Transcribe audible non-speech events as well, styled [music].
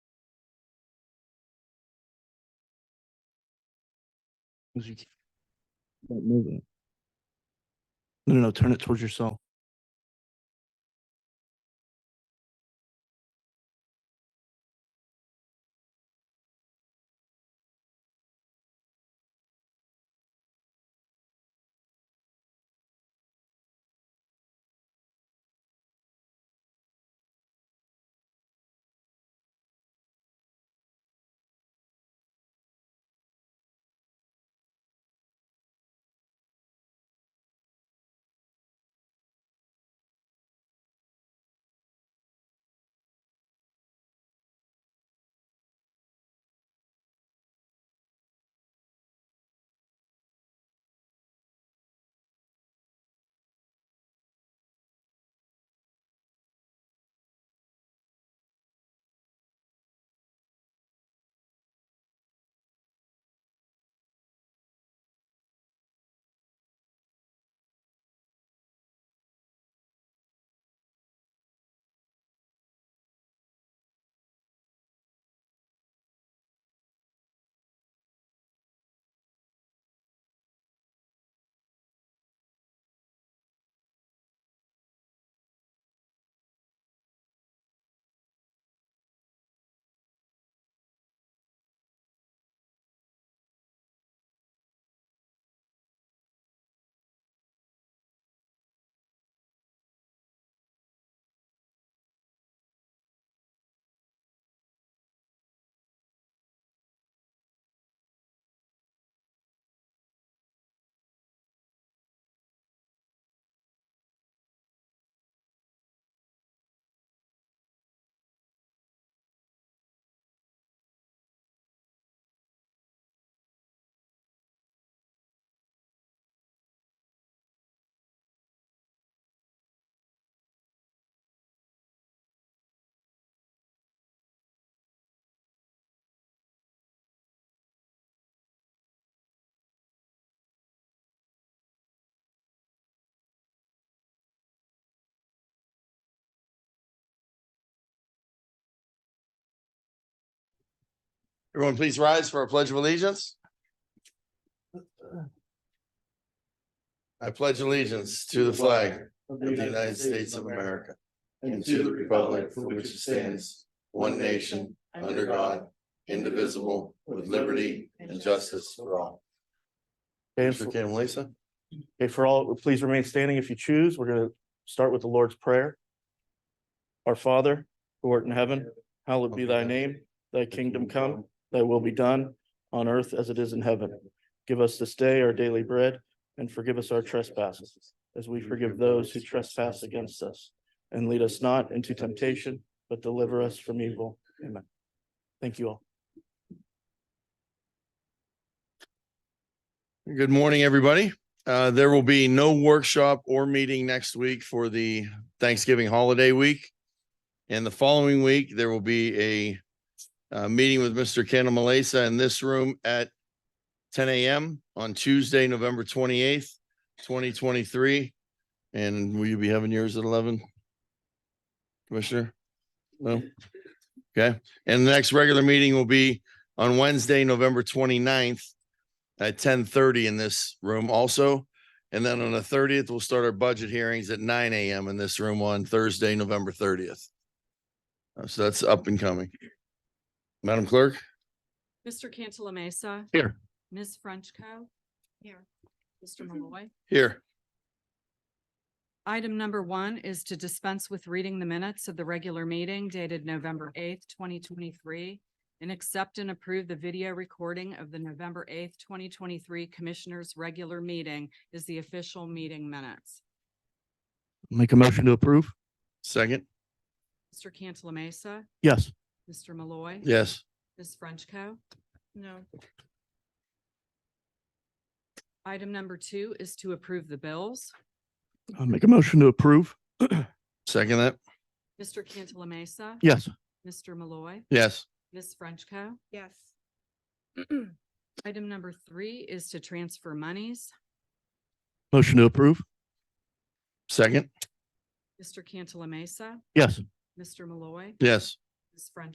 as you don't know that. No, no, no, turn it towards yourself. Everyone, please rise for our pledge of allegiance. I pledge allegiance to the flag of the United States of America and to the republic for which it stands, one nation, under God, indivisible, with liberty and justice for all. Okay, Mr. Kim, Lisa? Okay, for all, please remain standing if you choose. We're gonna start with the Lord's Prayer. Our Father, who art in heaven, hallowed be thy name, thy kingdom come, thy will be done on earth as it is in heaven. Give us this day our daily bread and forgive us our trespasses as we forgive those who trespass against us. And lead us not into temptation, but deliver us from evil. Amen. Thank you all. Good morning, everybody. Uh, There will be no workshop or meeting next week for the Thanksgiving holiday week. And the following week, there will be a uh, meeting with Mr. Kendall Malesa in this room at ten AM on Tuesday, November twenty-eighth, twenty twenty-three. And will you be having yours at eleven? Commissioner? No? Okay. And the next regular meeting will be on Wednesday, November 29th at ten thirty in this room also. And then on the thirtieth, we'll start our budget hearings at nine AM in this room on Thursday, November thirtieth. Uh, So that's up and coming. Madam Clerk? Mr. Cantala Mesa. Here. Ms. Frenchco. Here. Mm-hmm. Mr. Malloy. Here. Item number one is to dispense with reading the minutes of the regular meeting dated November eighth, twenty twenty-three, and accept and approve the video recording of the November eighth, twenty twenty-three Commissioners' Regular Meeting is the official meeting minutes. Make a motion to approve? Second? Mr. Cantala Mesa, Yes. Mr. Malloy. Yes. Ms. Frenchco. No. Item number two is to approve the bills. I'll make a motion to approve? Second that? Mr. Cantala Mesa. Yes. Mr. Malloy. Yes. Ms. Frenchco. Yes, [clears throat] Item number three is to transfer monies. Motion to approve? Second? Mr. Cantala Mesa. Yes. Mr. Malloy. Yes. Ms. Frenchco.